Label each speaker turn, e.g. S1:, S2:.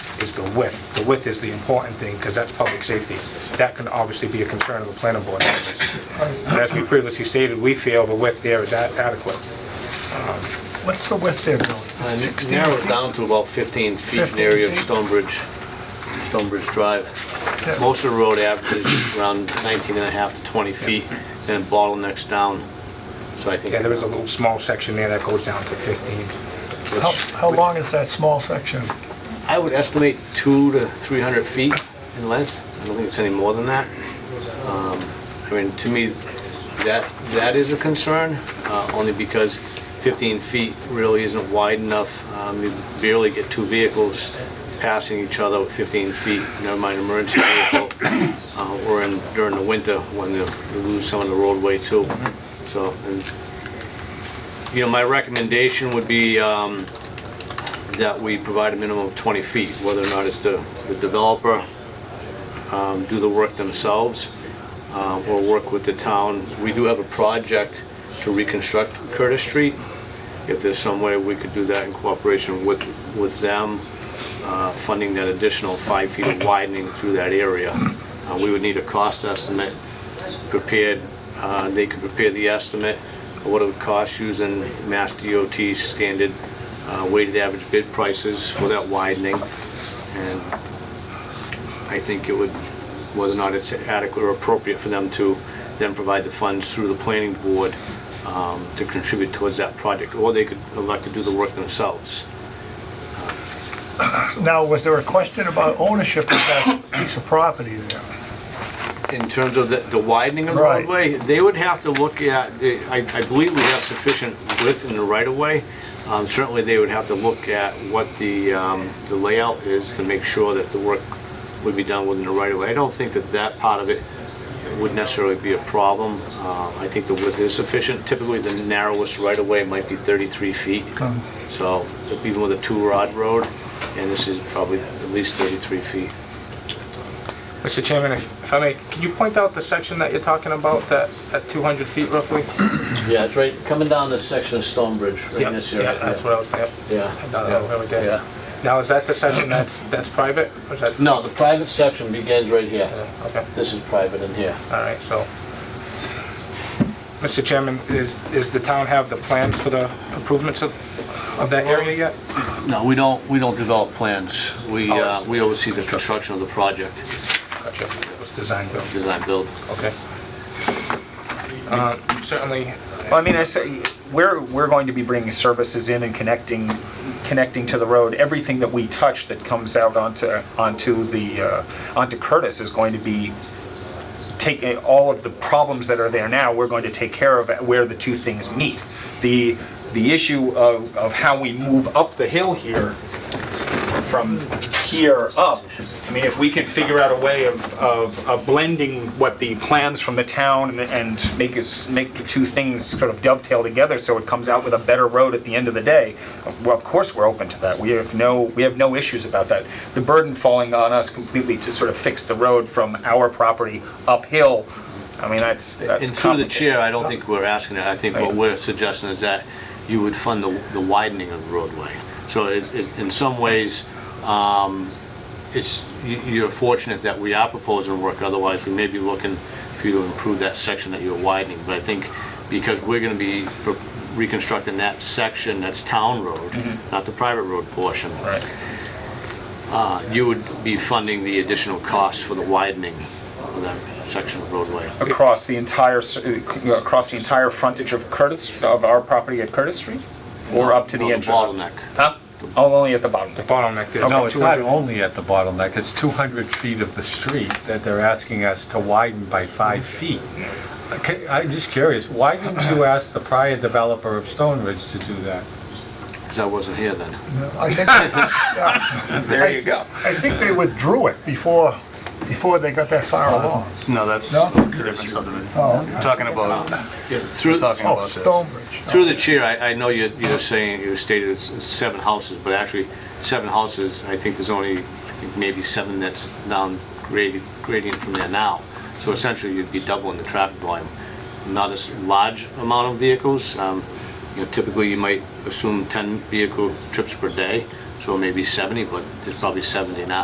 S1: is the width. The width is the important thing, because that's public safety. That can obviously be a concern of the planning board members. And As we previously stated, we feel the width there is a- adequate.
S2: What's the width there, Bill? Is it
S3: And
S2: 16
S3: narrow it
S2: feet?
S3: down to about 15 feet in
S2: 15
S3: the area of
S2: feet.
S3: Stonebridge, Stonebridge Drive.
S2: Yeah.
S3: Most of the road averages around 19 and a half to 20 feet, and bottlenecks down. So I think,
S1: Yeah, there is a little small section there that goes down to 15.
S2: How, how long is that small section?
S3: I would estimate two to 300 feet in length. I don't think it's any more than that. Um, I mean, to me, that, that is a concern, uh, only because 15 feet really isn't wide enough. Um, You barely get two vehicles passing each other with 15 feet, never mind emergency vehicle, uh, or in, during the winter when you you lose some of the roadway too. So, and, you know, my recommendation would be, um, that we provide a minimum of 20 feet, whether or not it's the the developer um, do the work themselves uh, or work with the town. We do have a project to reconstruct Curtis Street. If there's some way we could do that in cooperation with, with them, uh, funding that additional five feet of widening through that area. Uh, We would need a cost estimate prepared, uh, they could prepare the estimate of what it would cost using Mass DOT standard uh, weighted average bid prices for that widening. And I think it would, whether or not it's adequate or appropriate for them to then provide the funds through the planning board um, to contribute towards that project, or they could elect to do the work themselves.
S2: Now, was there a question about ownership of that piece of property there?
S3: In terms of the the widening of the
S2: Right.
S3: roadway, they would have to look at, I I believe we have sufficient width in the right-of-way. Um, Certainly, they would have to look at what the um, the layout is to make sure that the work would be done within the right-of-way. I don't think that that part of it would necessarily be a problem. Uh, I think the width is sufficient. Typically, the narrowest right-of-way might be 33 feet. So even with a two-rod road, and this is probably at least 33 feet.
S1: Mr. Chairman, if if I may, can you point out the section that you're talking about, that, at 200 feet roughly?
S3: Yeah, it's right, coming down this section of Stonebridge, right in
S1: Yeah,
S3: this area.
S1: Yeah, that's what I was, yep.
S3: Yeah.
S1: No, no, right there.
S3: Yeah.
S1: Now, is that the section that's, that's private? Or is that,
S3: No, the private section begins right here.
S1: okay,
S3: This is private in here.
S1: all right, so. Mr. Chairman, is, is the town have the plans for the improvements of, of that area yet?
S3: No, we don't, we don't develop plans. We, uh,
S1: Oh.
S3: we oversee the construction of the project,
S1: Gotcha, it was design build,
S3: design build.
S1: okay. Uh, Certainly,
S4: Well, I mean, I say, we're, we're going to be bringing services in and connecting, connecting to the road. Everything that we touch that comes out onto, onto the, uh, onto Curtis is going to be taking, all of the problems that are there now, we're going to take care of at where the two things meet. The, the issue of, of how we move up the hill here from here up, I mean, if we can figure out a way of, of, of blending what the plans from the town and, and make us, make the two things sort of dovetail together so it comes out with a better road at the end of the day, of- well, of course, we're open to that. We have no, we have no issues about that. The burden falling on us completely to sort of fix the road from our property uphill, I mean, that's, that's
S3: And through the
S4: complicated.
S3: chair, I don't think we're asking that. I think what
S4: Right.
S3: we're suggesting is that you would fund the the widening of the roadway. So it, it- in some ways, um, it's, you- you're fortunate that we are proposing work, otherwise we may be looking for you to improve that section that you're widening. But I think because we're gonna be pro- reconstructing that section, that's town road, not the private road portion.
S4: Mm-hmm. Right.
S3: uh, You would be funding the additional costs for the widening of that section of roadway.
S4: Across the entire, s- uh, across the entire frontage of Curtis, of our property at Curtis Street? Or up to the
S3: No,
S4: entrance?
S3: Bottleneck.
S4: Huh? Oh, only at the bottom.
S1: the bottleneck there.
S5: No, it's not
S1: 200
S5: only at the bottleneck, it's 200 feet of the street that they're asking us to widen by five feet. Okay, I'm just curious, why didn't you ask the prior developer of Stone Ridge to do that?
S3: Because I wasn't here then.
S2: I think, yeah,
S4: There you go.
S2: I think they withdrew it before, before they got that far
S4: Oh,
S2: along.
S6: No, that's,
S2: No?
S6: that's a different subdivision. You're talking about,
S3: Through,
S6: talking
S2: Oh,
S6: about this.
S2: Stonebridge.
S3: through the chair, I, I know you're, you're saying, you stated it's seven houses, but actually, seven houses, I think there's only, I think maybe seven that's down gradi- gradient from there now. So essentially, you'd be doubling the traffic volume. Not as large amount of vehicles. Um, You know, typically, you might assume 10 vehicle trips per day. so maybe 70, but there's probably 70 now.